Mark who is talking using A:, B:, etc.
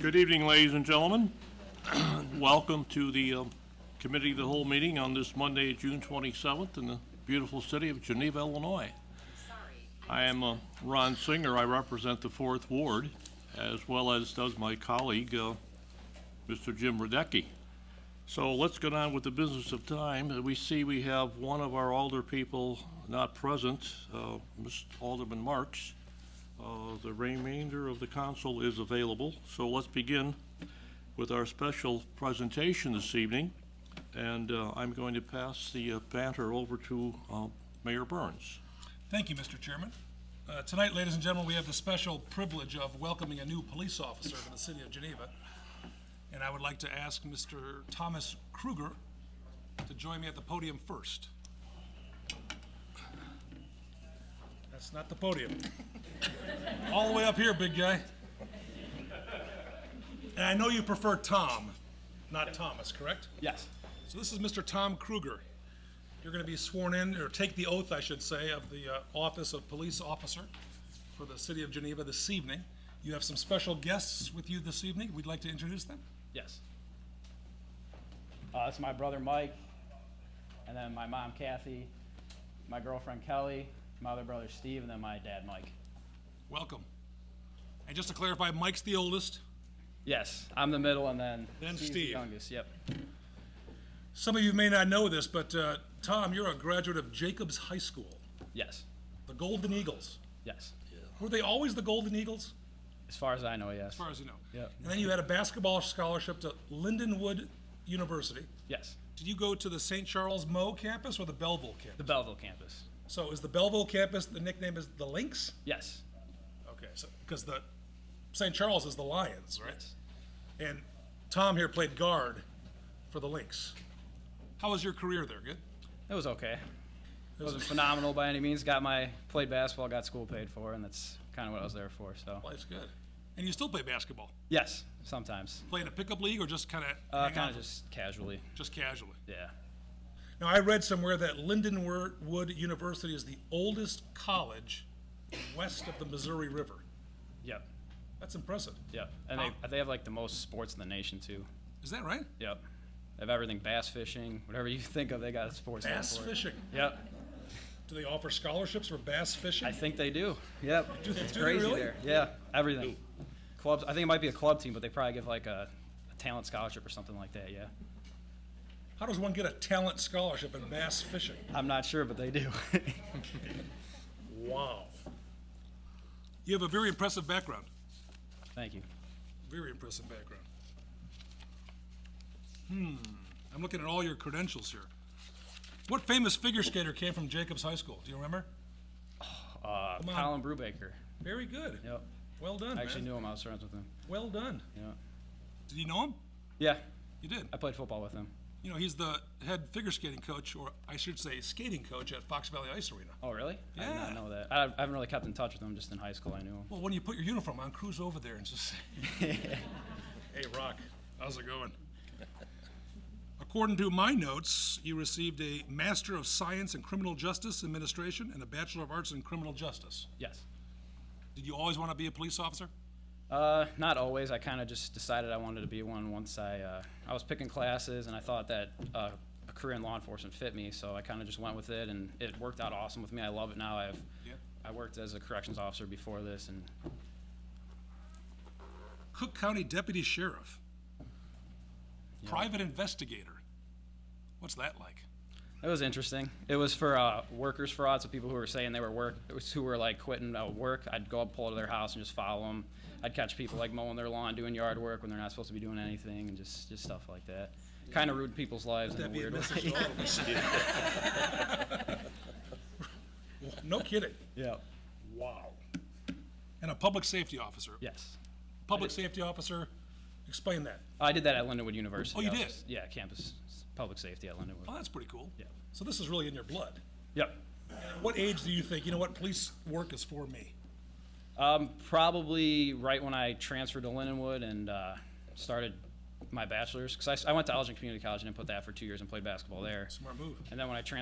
A: Good evening, ladies and gentlemen. Welcome to the um, Committee of the Whole meeting on this Monday, June 27th, in the beautiful city of Geneva, Illinois. I am uh, Ron Singer. I represent the Fourth Ward, as well as does my colleague, uh, Mr. Jim Radecki. So let's get on with the business of time. Uh, We see we have one of our alder people not present, uh, Ms. Alderman Marks. Uh, The remainder of the council is available, so let's begin with our special presentation this evening. And uh, I'm going to pass the uh, banter over to uh, Mayor Burns.
B: Thank you, Mr. Chairman. Uh, Tonight, ladies and gentlemen, we have the special privilege of welcoming a new police officer to the city of Geneva. And I would like to ask Mr. Thomas Kruger to join me at the podium first. That's not the podium. All the way up here, big guy. And I know you prefer Tom, not Thomas, correct?
C: Yes.
B: So this is Mr. Tom Kruger. You're going to be sworn in, or take the oath, I should say, of the uh, Office of Police Officer for the City of Geneva this evening. You have some special guests with you this evening. We'd like to introduce them.
C: Yes. Uh, that's my brother Mike, and then my mom Kathy, my girlfriend Kelly, my other brother Steve, and then my dad Mike.
B: Welcome. And just to clarify, Mike's the oldest.
C: Yes, I'm the middle, and then
B: Then
C: Steve's
B: Steve.
C: the youngest. Yep.
B: Some of you may not know this, but uh, Tom, you're a graduate of Jacobs High School,
C: Yes.
B: the Golden Eagles.
C: Yes.
B: Were they always the Golden Eagles,
C: As far as I know, yes.
B: as far as you know?
C: Yep.
B: And then you had a basketball scholarship to Lindenwood University.
C: Yes.
B: Did you go to the St. Charles Mo campus or the Belleville campus?
C: The Belleville campus.
B: So is the Belleville campus, the nickname is the Lynx?
C: Yes.
B: Okay, so, because the, St. Charles is the Lions, right? And Tom here played guard for the Lynx. How was your career there, good?
C: It was okay. It wasn't phenomenal by any means. Got my played basketball, got school paid for, and that's kind of what I was there for. So
B: Life's good. And you still play basketball?
C: yes, sometimes,
B: Play in a pickup league or just kind of?
C: uh, kind of just casually.
B: Just casually?
C: Yeah.
B: Now, I read somewhere that Lindenwood University is the oldest college west of the Missouri River.
C: Yep.
B: That's impressive.
C: Yep. And they, they have like the most sports in the nation too.
B: Is that right?
C: Yep. They have everything bass fishing, whatever you think of, they got a sports. name
B: Bass
C: for it.
B: fishing.
C: Yep.
B: Do they offer scholarships for bass fishing?
C: I think they do. Yep.
B: Do they-
C: it's
B: do they
C: crazy
B: really?
C: there. Yeah. Everything. Clubs. I think it might be a club team, but they probably give like a, a talent scholarship or something like that. Yeah.
B: How does one get a talent scholarship in bass fishing?
C: I'm not sure, but they do.
B: Wow. You have a very impressive background.
C: Thank you.
B: Very impressive background. Hmm. I'm looking at all your credentials here. What famous figure skater came from Jacobs High School? Do you remember?
C: Uh,
B: on.
C: Colin Brubaker.
B: Very good.
C: Yep.
B: Well done,
C: I actually
B: man.
C: knew him. I was friends with him.
B: Well done.
C: Yeah. Uh,
B: Did you know him?
C: Yeah.
B: You did.
C: I played football with him.
B: You know, he's the head figure skating coach, or I should say, skating coach at Fox Valley Ice Arena.
C: Oh, really? I did
B: Yeah.
C: not know that. I, I haven't really kept in touch with him. Just in high school, I knew him.
B: Well, when you put your uniform on, cruise over there and just say, "Hey, Rock, how's it going?" According to my notes, you received a Master of Science in Criminal Justice Administration and a Bachelor of Arts in Criminal Justice.
C: Yes.
B: Did you always want to be a police officer?
C: Uh, not always. I kind of just decided I wanted to be one once I uh, I was picking classes and I thought that uh, a career in law enforcement fit me, so I kind of just went with it and it worked out awesome with me. I love it now. I've
B: Yeah.
C: I worked as a corrections officer before this, and
B: Cook County Deputy Sheriff, private investigator. What's that like?
C: it was interesting. It was for uh, workers fraud, so people who were saying they were work who were like quitting uh, work. I'd go up, pull to their house, and just follow them. I'd catch people like mowing their lawn, doing yard work when they're not supposed to be doing anything, and just just stuff like that. Kind of ruined people's lives in a
B: That'd be a
C: weird way.
B: message to all of us. No kidding.
C: Yeah.
B: Wow. And a public safety officer.
C: Yes.
B: Public safety officer, explain that.
C: Oh, I did that at Lindenwood University.
B: Oh, you
C: I was
B: did?
C: just- Yeah, campus s- public safety at
B: Oh,
C: Lindenwood.
B: that's pretty cool.
C: Yeah.
B: So this is really in your blood.
C: Yep.
B: What age do you think, you know what, police work is for me?
C: Um, probably right when I transferred to Lindenwood and uh, started my bachelor's, because I, went to Elgin Community College and then put that for two years and played basketball there.
B: Smart move.
C: And then when I transferred